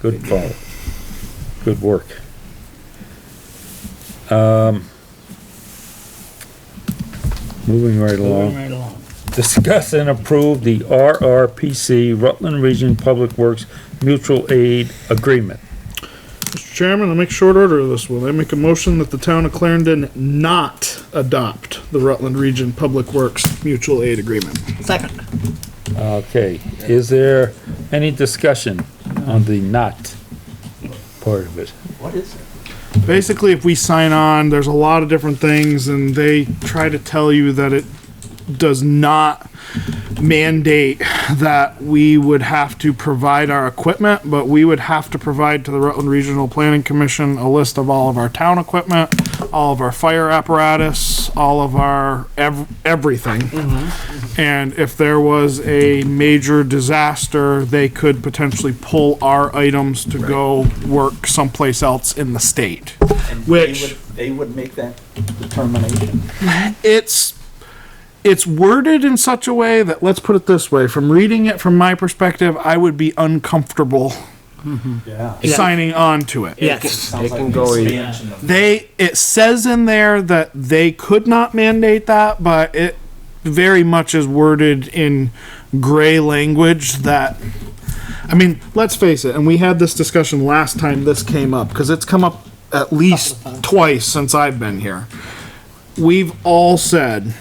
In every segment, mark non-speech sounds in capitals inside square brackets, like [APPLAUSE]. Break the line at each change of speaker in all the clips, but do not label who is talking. Good call. Good work. Um, moving right
Moving
along.
right along.
Discuss and approve the RRPC Rutland Region Public Works Mutual Aid Agreement.
Mr. Chairman, I'll make short order of this one. I make a motion that the town of Clarendon not adopt the Rutland Region Public Works Mutual Aid Agreement.
Second.
Okay, is there any discussion on the not part of it?
What is it?
Basically, if we sign on, there's a lot of different things and they try to tell you that it does not mandate that we would have to provide our equipment, but we would have to provide to the Rutland Regional Planning Commission a list of all of our town equipment, all of our fire apparatus, all of our ev- everything.
Mm-hmm.
And if there was a major disaster, they could potentially pull our items to go work someplace else in the state. Which-
They would make that determination.
It's it's worded in such a way that let's put it this way, from reading it from my perspective, I would be uncomfortable
Yeah.
signing on to it.
Yes.
Sounds like
can
an
go either.
expansion of-
They it says in there that they could not mandate that, but it very much is worded in gray language that I mean, let's face it, and we had this discussion last time this came up cuz it's come up at least twice since I've been here. We've all said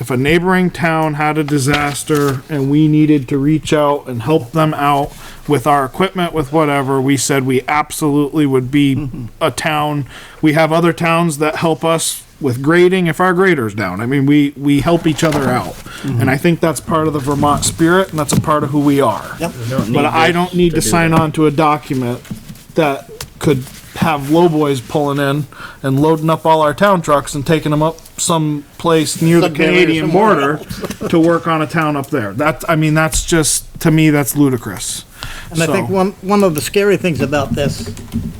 if a neighboring town had a disaster and we needed to reach out and help them out with our equipment, with whatever, we said we absolutely would [LAUGHS] be a town. We have other towns that help us with grading if our grader's down. I mean, we, we help each other out. And I think that's part of the Vermont spirit and that's a part of who we are.
Yep.
But I don't need to sign on to a document that could have lowboys pulling in and loading up all our town trucks and taking them up someplace near the
Sudbury or
Canadian
somewhere
border to work on a town up there. That, I mean, that's just, to me, that's ludicrous.
And I think
So-
one, one of the scary things about this,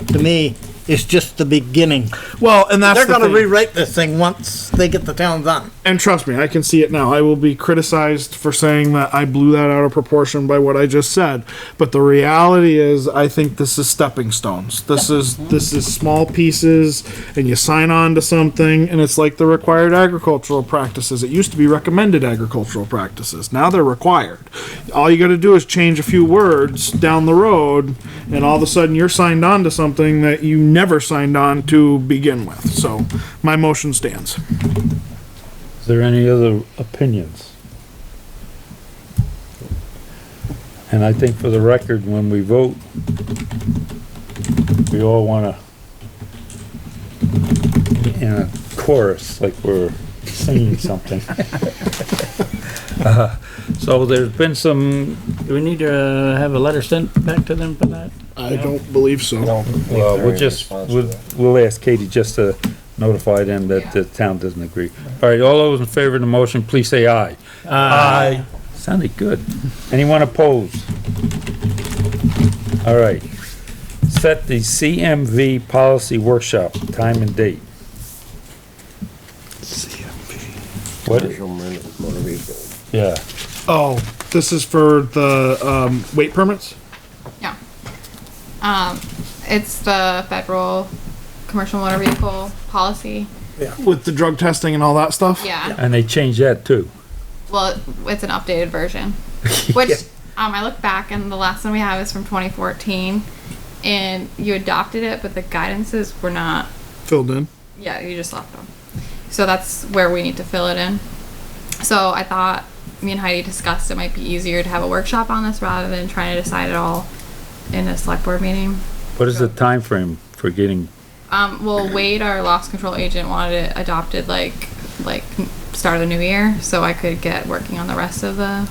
to me, is just the beginning.
Well, and that's
They're
the
gonna
thing.
rewrite this thing once they get the towns on.
and trust me, I can see it now. I will be criticized for saying that I blew that out of proportion by what I just said, but the reality is, I think this is stepping stones. This is this is small pieces, and you sign on to something, and it's like the required agricultural practices. It used to be recommended agricultural practices. Now they're required. All you got to do is change a few words down the road, and all of a sudden you're signed on to something that you never signed on to begin with. So, my motion stands.
Is there any other opinions? And I think for the record, when we vote, we all wanna in a chorus, like we're
[LAUGHS]
singing something.
Uh-huh.
Uh, So there's been some,
Do we need to uh, have a letter sent back to them for that?
I don't believe so.
Uh, well, we'll just, we'll, we'll ask Katie just to notify them that the town doesn't agree. All right, all those in favor of the motion, please say aye. Aye. Sounded good. Anyone opposed? All right. Set the CMV policy workshop, time and date. What,
Commercial motor motor vehicle.
yeah,
Oh, this is for the, um, weight permits?
Yeah. Um, it's the federal commercial motor vehicle policy.
With the drug testing and all that stuff?
Yeah.
and they changed that too.
Well, it's an updated version, which um, I look back and the last one we have is from 2014, and you adopted it, but the guidances were not.
Filled in.
Yeah, you just left them. So that's where we need to fill it in. So I thought me and Heidi discussed it might be easier to have a workshop on this rather than trying to decide it all in a select board meeting.
What is the time frame for getting,
Um, well, Wade, our loss control agent, wanted it adopted like like start of the new year, so I could get working on the rest of the.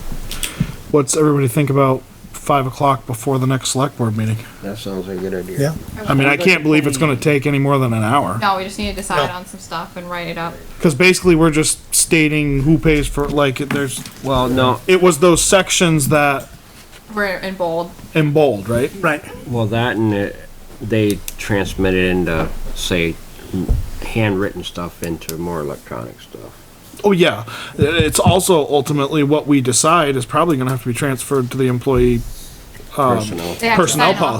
What's everybody think about five o'clock before the next select board meeting?
That sounds like a good idea.
Yeah.
I mean, I can't believe it's gonna take any more than an hour.
No, we just need to decide on some stuff and write it up.
Cause basically, we're just stating who pays for, like, there's,
Well, no,
it was those sections that,
We're in bold.
in bold, right?
Right.
well, that and it- they transmitted into, say, handwritten stuff into more electronic stuff.
Oh, yeah. It's also ultimately what we decide is probably gonna have to be transferred to the employee um,
Personnel.
They have to
Personnel
sign off